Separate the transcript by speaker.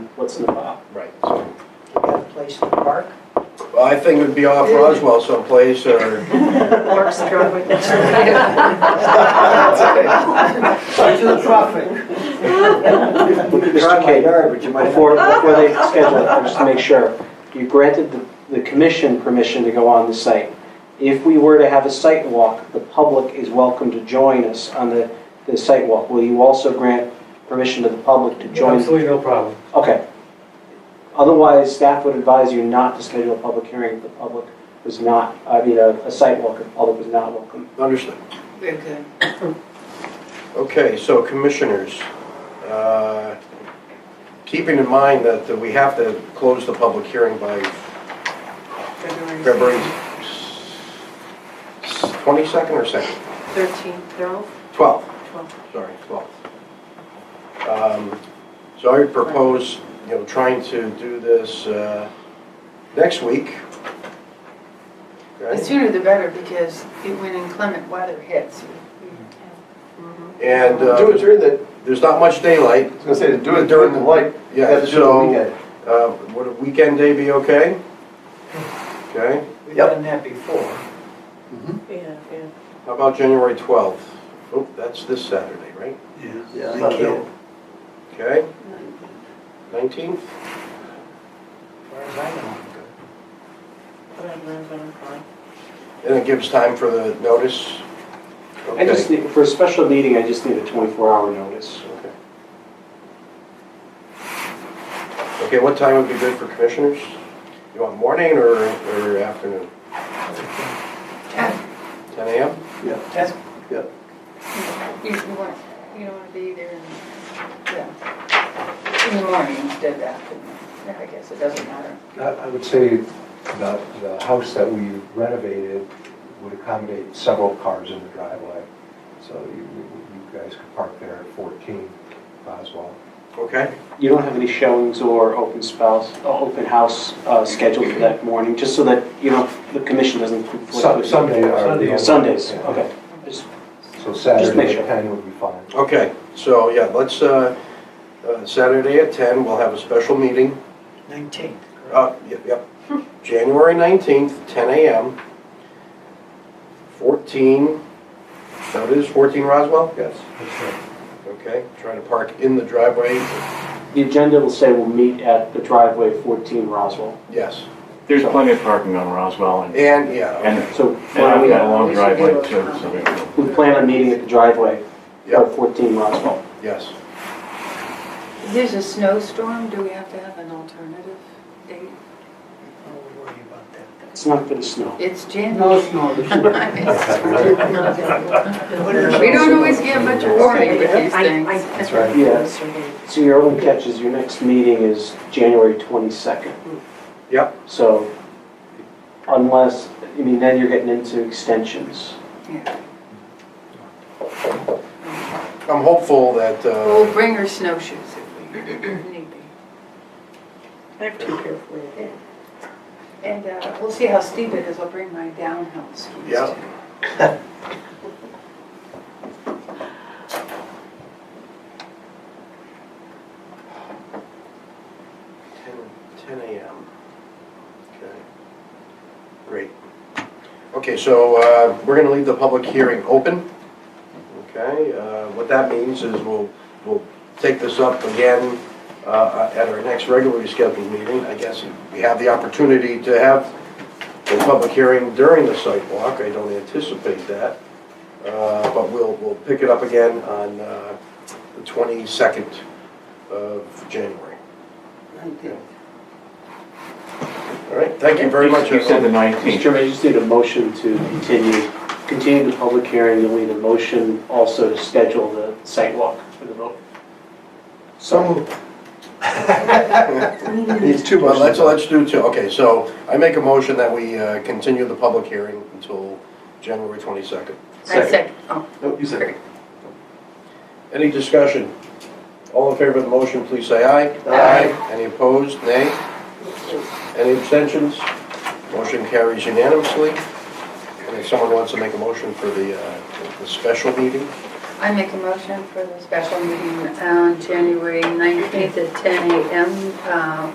Speaker 1: what's in the file.
Speaker 2: Right.
Speaker 3: Do you have a place to park?
Speaker 2: Well, I think it'd be off Roswell someplace, or,
Speaker 4: Mark's driveway.
Speaker 3: Into the traffic.
Speaker 1: Mr. King, Before, before they schedule it, just to make sure, you granted the, the commission permission to go on the site. If we were to have a site walk, the public is welcome to join us on the, the site walk. Will you also grant permission to the public to join?
Speaker 5: Absolutely no problem.
Speaker 1: Okay. Otherwise, staff would advise you not to schedule a public hearing if the public was not, I mean, a, a site walk if the public was not welcome.
Speaker 2: understood.
Speaker 3: Okay.
Speaker 2: Okay, so commissioners, uh, keeping in mind that that we have to close the public hearing by February s- s- 22nd or 2nd?
Speaker 4: Thirteen, they're all
Speaker 2: 12th,
Speaker 4: twelve.
Speaker 2: sorry, 12th. Um, So I would propose, you know, trying to do this uh, next week.
Speaker 4: The
Speaker 2: right?
Speaker 4: sooner the better, because it- when inclement weather hits. Mhm.
Speaker 2: And
Speaker 6: Do it
Speaker 2: uh,
Speaker 6: during the,
Speaker 2: there's not much daylight,
Speaker 6: I was gonna say, do it during the light, you
Speaker 2: yeah,
Speaker 6: have to do it on the
Speaker 2: so,
Speaker 6: weekend.
Speaker 2: uh, would a weekend day be okay? Okay,
Speaker 3: We've done that before.
Speaker 4: Yeah, yeah.
Speaker 2: how about January 12th? Oh, that's this Saturday, right?
Speaker 6: Yeah,
Speaker 3: They
Speaker 6: not
Speaker 3: can't.
Speaker 6: available.
Speaker 2: Okay, 19th?
Speaker 3: As far as I know.
Speaker 4: But I'm, but I'm fine.
Speaker 2: And it gives time for the notice?
Speaker 1: I just need, for a special meeting, I just need a twenty-four hour notice.
Speaker 2: Okay, Okay. what time would be good for commissioners? You want morning or, or afternoon?
Speaker 4: Ten.
Speaker 2: 10 AM?
Speaker 3: That's
Speaker 4: You you want, you don't want to be there in, yeah, in the morning instead of afternoon. Yeah, I guess it doesn't matter.
Speaker 5: I I would say the, the house that we renovated would accommodate several cars in the driveway. So you, you guys could park there at 14 Boswell.
Speaker 2: Okay,
Speaker 1: You don't have any showings or open spouse, uh, open house uh, scheduled for that morning, just so that, you know, the commission doesn't conflict
Speaker 5: Sun-
Speaker 1: with...
Speaker 5: Sunday are the...
Speaker 1: Sundays,
Speaker 5: Yeah.
Speaker 1: okay. Just-
Speaker 5: So
Speaker 1: Just make
Speaker 5: Saturday
Speaker 1: sure.
Speaker 5: at 10 would be fine.
Speaker 2: okay, so yeah, let's, uh, uh, Saturday at 10, we'll have a special meeting.
Speaker 3: 19.
Speaker 2: Uh, yep, yep. January 19th, 10 AM. 14, that is 14 Roswell?
Speaker 5: Yes.
Speaker 2: Okay, trying to park in the driveway,
Speaker 1: The agenda will say we'll meet at the driveway 14 Roswell.
Speaker 2: yes.
Speaker 7: There's plenty of parking on Roswell and,
Speaker 2: And, yeah, okay.
Speaker 7: and
Speaker 1: So
Speaker 7: and I've got a
Speaker 1: why
Speaker 7: long driveway too, so we-
Speaker 1: don't we, we plan on meeting at the driveway
Speaker 2: Yep.
Speaker 1: for 14 Roswell.
Speaker 2: Yes.
Speaker 4: If there's a snowstorm, do we have to have an alternative date?
Speaker 3: Don't worry about that.
Speaker 1: It's not going to snow.
Speaker 4: It's
Speaker 3: No,
Speaker 4: January.
Speaker 3: it's not.
Speaker 4: We don't always get much warning with these
Speaker 8: I- I-
Speaker 4: things.
Speaker 5: That's right.
Speaker 1: Yeah, so your only catch is your next meeting is January 22nd.
Speaker 2: Yep.
Speaker 1: So unless, I mean, then you're getting into extensions.
Speaker 2: I'm hopeful that, uh,
Speaker 4: We'll bring her snowshoes if we need be.
Speaker 8: I have two pair for you.
Speaker 4: And uh, we'll see how steep it is. I'll bring my downhill skis too.
Speaker 2: Yeah. Ten 10 a.m. Okay, great. Okay, so uh, we're going to leave the public hearing open. Okay, uh, what that means is we'll, we'll take this up again uh, at our next regularly scheduled meeting. I guess we have the opportunity to have the public hearing during the site walk. I don't anticipate that. Uh, But we'll, we'll pick it up again on uh, the 22nd of January. All right, thank you very much.
Speaker 7: You said the
Speaker 2: everyone.
Speaker 1: Mr.
Speaker 7: 19th.
Speaker 1: Chairman, I just need a motion to continue, continue the public hearing, you'll need a motion also to schedule the site walk for the vote.
Speaker 5: So It's two
Speaker 2: Well, let's,
Speaker 5: motions.
Speaker 2: let's do two, okay, so I make a motion that we uh, continue the public hearing until January 22nd.
Speaker 4: I second. Oh,
Speaker 6: No, you said.
Speaker 2: Any discussion? All in favor of the motion, please say aye.
Speaker 3: Aye.
Speaker 2: Any opposed, nay? Any abstentions? Motion carries unanimously. And if someone wants to make a motion for the, uh, the special meeting,
Speaker 4: I make a motion for the special meeting on January 19th at 10 a.m. uh,